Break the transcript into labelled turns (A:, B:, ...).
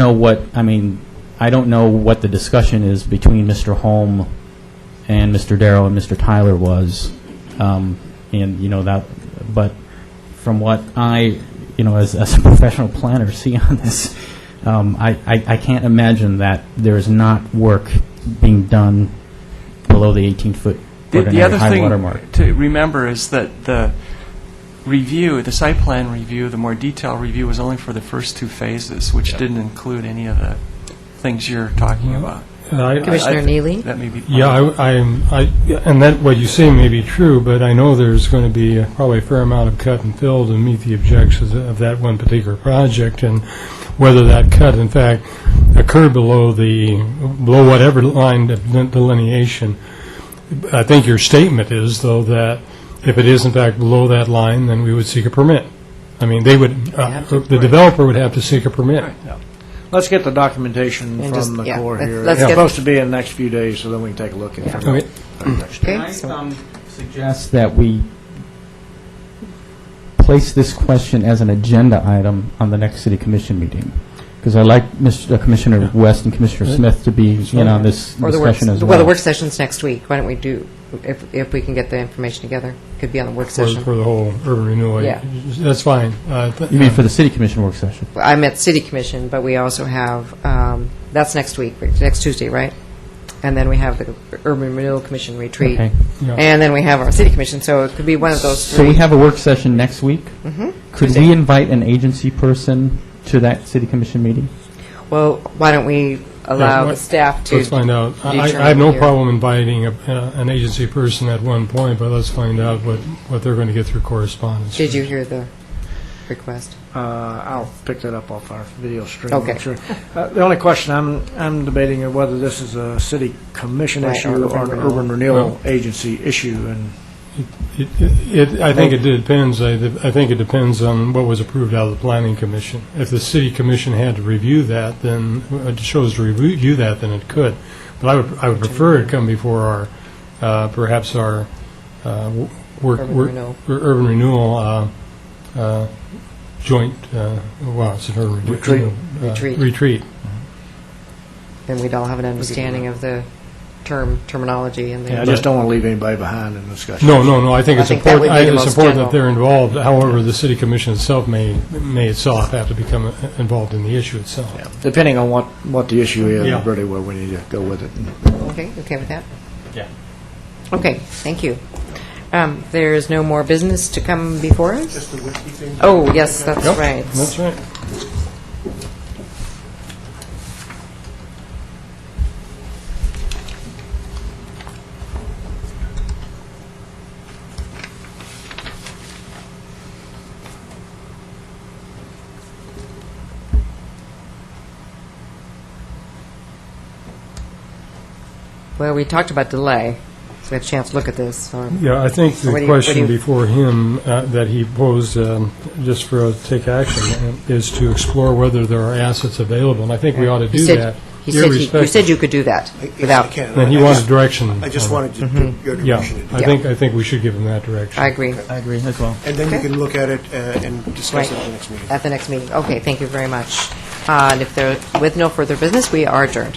A: know what, I mean, I don't know what the discussion is between Mr. Holm and Mr. Darrow and Mr. Tyler was, um, and, you know, that, but from what I, you know, as, as a professional planner see on this, um, I, I, I can't imagine that there is not work being done below the 18-foot
B: The- The
A: ordinary
B: other
A: high water mark.
B: thing to remember is that the review, the site plan review, the more detailed review was only for the first two phases, which didn't include any of the things you're talking about.
C: Uh, I-
B: I-
C: Commissioner Neely?
B: That may be. part
C: Yeah,
B: of it.
C: I, I'm- I, and that, what you say may be true, but I know there's going to be probably a fair amount of cut and fill to meet the objectives of that one particular project, and whether that cut, in fact, occurred below the, below whatever line of delineation. I think your statement is, though, that if it is in fact below that line, then we would seek a permit. I mean, they would, uh, the developer would have to seek a permit.
D: Let's get the documentation
E: And just-
D: from the
E: yeah,
D: Corps
E: let's-
D: here.
E: let's
D: It's
E: get-
D: supposed to be in the next few days, so then we can take a look at
E: Yeah.
D: it.
C: Okay.
A: Can
E: Okay,
A: I
E: so
A: um, suggest that we place this question as an agenda item on the next city commission meeting? Because I like Mr. Commissioner West and Commissioner Smith to be in on this
E: Or the work,
A: discussion as well.
E: well, the work session's next week. Why don't we do, if, if we can get the information together, could be on the work
C: For,
E: session.
C: for the whole urban renewal.
E: Yeah.
C: That's fine. Uh, th-
A: You mean for the city commission work session?
E: I'm at City Commission, but we also have, um, that's next week, next Tuesday, right? And then we have the Urban Renewal Commission retreat.
A: Okay.
C: Yeah.
E: And then we have our City Commission, so it could be one of those
A: So
E: three.
A: we have a work session next week?
E: Mhm.
A: Could
E: Tuesday.
A: we invite an agency person to that city commission meeting?
E: Well, why don't we allow the
C: what-
E: staff to?
C: Let's find out. I,
E: determine
C: I have no
E: here.
C: problem inviting a, uh, an agency person at one point, but let's find out what, what they're going to get through correspondence.
E: Did you hear the request?
D: Uh, I'll pick that up off our video stream.
E: Okay.
D: I'm sure. Uh, The only question I'm, I'm debating is whether this is a city commission
E: Right,
D: issue
E: urban
D: or an
E: renewal.
D: urban renewal agency issue, and
C: It, it, I think it depends, I, I think it depends on what was approved out of the planning commission. If the city commission had to review that, then, uh, chose to review that, then it could. But I would, I would prefer it come before our, uh, perhaps our, uh, w- work,
E: Urban
C: work-
E: renewal.
C: ur- urban renewal, uh, uh, joint, uh, well, it's an urban. re-
D: Retreat.
C: uh,
E: Retreat.
C: Retreat.
E: Then we'd all have an understanding of the term, terminology and the.
D: I just don't want to leave anybody behind in the discussion.
C: No, no, no, I think
E: I
C: it's
E: think that
C: important,
E: would be
C: I-
E: the
C: it's
E: most
C: important
E: general.
C: that they're involved, however, the city commission itself may, may itself have to become uh, involved in the issue itself.
D: Yeah. Depending on what, what the issue
C: Yeah.
D: is, really where we need to go with it.
E: Okay, you okay with that?
A: Yeah.
E: Okay, thank you. Um, There is no more business to come before us? Oh, yes, that's
C: Yep,
E: right.
C: That's right.
E: Well, we talked about delay, so we have a chance to look at this. or-
C: Yeah, I think
E: What do
C: the
E: you- what do
C: question
E: you-
C: before him uh, that he posed, um, just for us to take action, uh, is to explore whether there are assets available, and I think we ought to
E: He
C: do
E: said-
C: that.
E: He said, he- you said
C: irrespective-
E: you could do that
F: I- yes, I
E: without, Mm-hmm.
F: can.
C: And he
F: I
C: wanted
F: just-
C: direction.
F: I just
C: on
F: wanted
C: it.
F: to get your
C: Yeah,
F: direction.
C: I
E: Yeah.
C: think, I think we should give him that direction.
E: I agree,
A: I agree as well.
F: And then you
E: Okay.
F: can look at it uh, and discuss it at the next meeting.
E: at the next meeting. Okay, thank you very much. Uh, And if there, with no further business, we are adjourned.